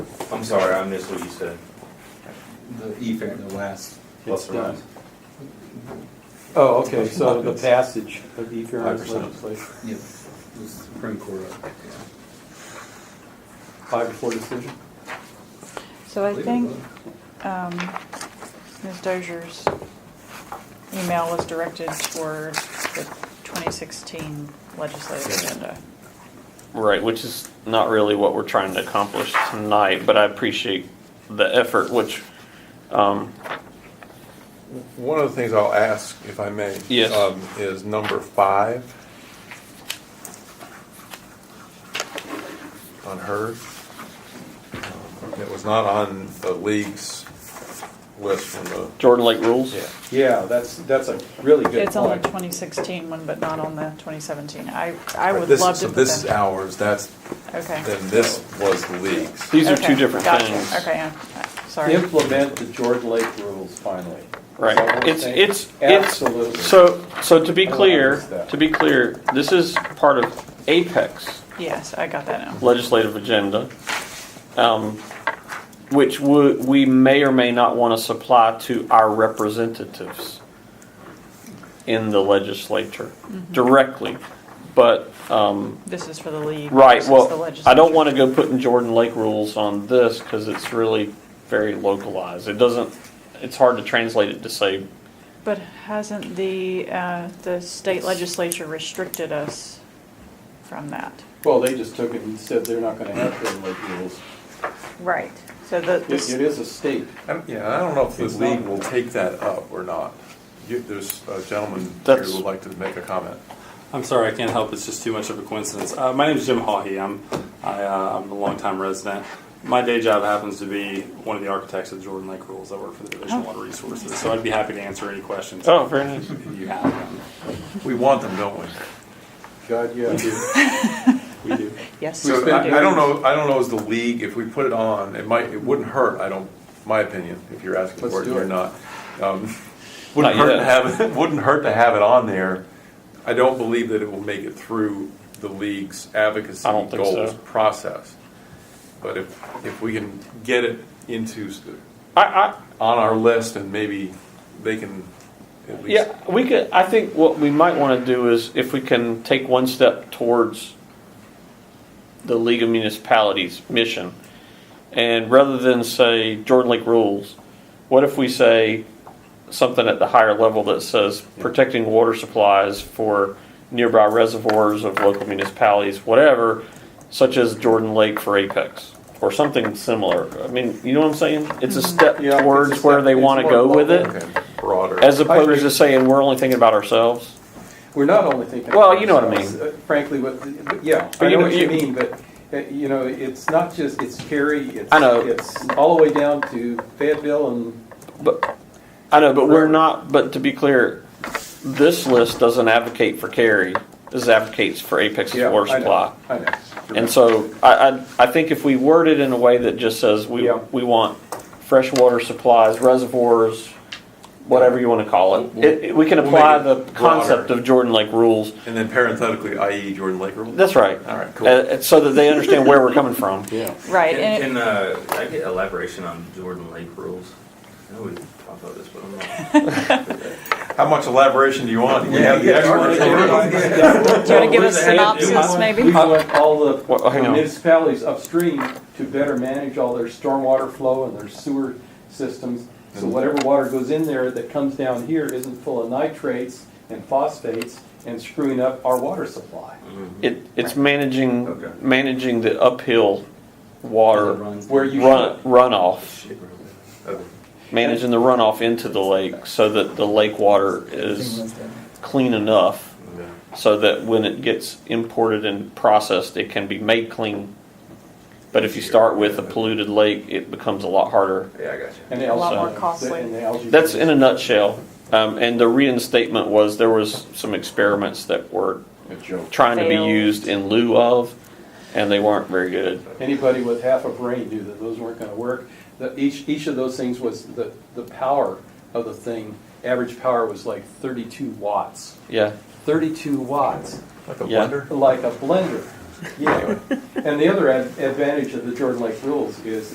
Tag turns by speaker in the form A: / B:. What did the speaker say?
A: I'm sorry, I missed what you said.
B: The E E-fair, the last.
A: Plus or minus.
C: Oh, okay, so the passage of e-fairness
A: 5%.
C: legislation,
B: Yep, the Supreme Court. yeah.
C: five to four decision?
D: So I
B: Believe it
D: think
B: or not.
D: um, Ms. Dozier's email was directed toward the 2016 legislative agenda.
E: Right, which is not really what we're trying to accomplish tonight, but I appreciate the effort, which, um,
F: One of the things I'll ask, if I may.
E: Yes.
F: um, Is number five. On hers. Um, It was not on the league's list from the,
E: Jordan Lake rules.
F: yeah.
C: Yeah, that's, that's a really good
D: It's on the
C: point.
D: 2016 one, but not on the 2017. I, I would
F: This-
D: love to
F: So
D: put
F: this is
D: that.
F: ours, that's,
D: Okay.
F: then this was the league's.
E: These are
D: Okay,
E: two different
D: gotcha.
E: things.
D: Okay, yeah, sorry.
C: Implement the George Lake rules finally.
E: Right.
C: Is that what we're
E: It's-
C: saying?
E: it's- it's-
C: Absolutely.
E: So, so to be
C: I
E: clear,
C: like that.
E: to be clear, this is part of Apex
D: Yes, I got that now.
E: legislative agenda, um, which wo- we may or may not want to supply to our representatives in the legislature
D: Mm-hmm.
E: directly. But, um,
D: This is for the league.
E: Right,
D: versus the
E: well, I
D: legislature.
E: don't want to go putting Jordan Lake rules on this because it's really very localized. It doesn't, it's hard to translate it to say,
D: But hasn't the, uh, the state legislature restricted us from that?
C: Well, they just took it and said they're not gonna have George Lake rules.
D: Right. So the,
C: It, it
D: the-
C: is a state.
F: And, Yeah, I don't know if the league will take that up or not. You- There's a gentleman here
E: That's-
F: who would like to make a comment.
G: I'm sorry, I can't help. It's just too much of a coincidence. Uh, my name is Jim Hawhey. I'm I, uh, I'm a longtime resident. My day job happens to be one of the architects of Jordan Lake Rules. I work for the Division of Water Resources, so I'd be happy to answer any questions
E: oh, very nice.
G: if you have them.
F: We want them, don't we?
C: God, yeah.
G: We do. we do.
D: yes.
F: So
D: we
F: I,
D: do.
F: I don't know, I don't know as the league, if we put it on, it might, it wouldn't hurt, I don't, my opinion, if you're asking
C: Let's
F: for it
C: do
F: or
C: it.
F: not. Um, Wouldn't
E: Not
F: hurt to
E: yet.
F: have, it. wouldn't hurt to have it on there. I don't believe that it will make it through the league's advocacy
E: I don't think
F: goals
E: so.
F: process. But if, if we can get it into, s-
E: I, I,
F: on our list and maybe they can at least.
E: yeah, we could, I think what we might want to do is if we can take one step towards the League of Municipalities mission, and rather than say Jordan Lake rules, what if we say something at the higher level that says protecting water supplies for nearby reservoirs of local municipalities, whatever, such as Jordan Lake for Apex, or something similar. I mean, you know what I'm saying? It's a step
C: Yeah, it's a
E: towards where
C: step-
E: they
C: it's
E: want to
C: more
E: go with
C: local.
E: it,
F: Okay, broader.
E: as
C: agree.
E: opposed to saying we're only thinking about ourselves.
C: We're not only thinking.
E: Well,
C: about
E: you know what I mean.
C: ourselves, uh, Frankly, what, the- but yeah,
E: But
C: I
E: you
C: know
E: know-
C: what you
E: you-
C: mean, but, uh, you know, it's not just, it's Cary, it's.
E: I know.
C: It's all the way down to Fayetteville and,
E: But I know, but we're not. But to be clear, this list doesn't advocate for carry. This advocates for Apex's
C: yeah,
E: water
C: I
E: supply.
C: know, I know.
E: And so I, I, I think if we word it in a way that just says we,
C: Yeah.
E: we want fresh water supplies, reservoirs, whatever you want to call it, it, it- we can
F: We'll
E: apply
F: make it
E: the concept
F: broader.
E: of Jordan Lake rules.
F: And then parenthetically, i.e. Jordan Lake rule?
E: That's right.
F: All right,
E: Uh,
F: cool.
E: uh, so that they understand where we're coming from.
G: Yeah.
D: Right, and it-
A: Can, can, uh, I get elaboration on Jordan Lake rules? I know we talked about this, but I'm not.
F: How much elaboration do you want? Do we have the
B: Yeah, yeah,
F: experts?
B: yeah.
D: Do you want to give
A: Well,
D: us
A: what does it have to do
D: synopsis,
A: with-
C: We
D: maybe?
C: want all
E: Well,
C: the
E: hang on.
C: municipalities upstream to better manage all their stormwater flow and their sewer systems. So
E: Mm-hmm.
C: whatever water goes in there that comes down here isn't full of nitrates and phosphates and screwing up our water supply.
E: It, it's managing,
A: Okay.
E: managing the uphill water
B: Runs.
C: Where you
E: run, runoff,
A: Shit, really. Okay.
E: managing the runoff into the lake so that the lake water is clean enough
A: Yeah.
E: so that when it gets imported and processed, it can be made clean. But if you start with a polluted lake, it becomes a lot harder.
A: Yeah, I got you.
C: And
D: A lot
E: more
C: algae-
D: costly.
C: and the algae-
E: That's in a nutshell. Um, and the reinstatement was there was some experiments that were trying to be
D: Failed.
E: used in lieu of, and they weren't very good.
C: Anybody with half a brain knew that those weren't gonna work. The, each, each of those things was, the, the power of the thing, average power was like thirty-two watts.
E: Yeah.
C: Thirty-two watts,
F: Like a
E: Yeah.
F: blender?
C: like a blender, yeah. And the other ad- advantage of the Jordan Lake rules is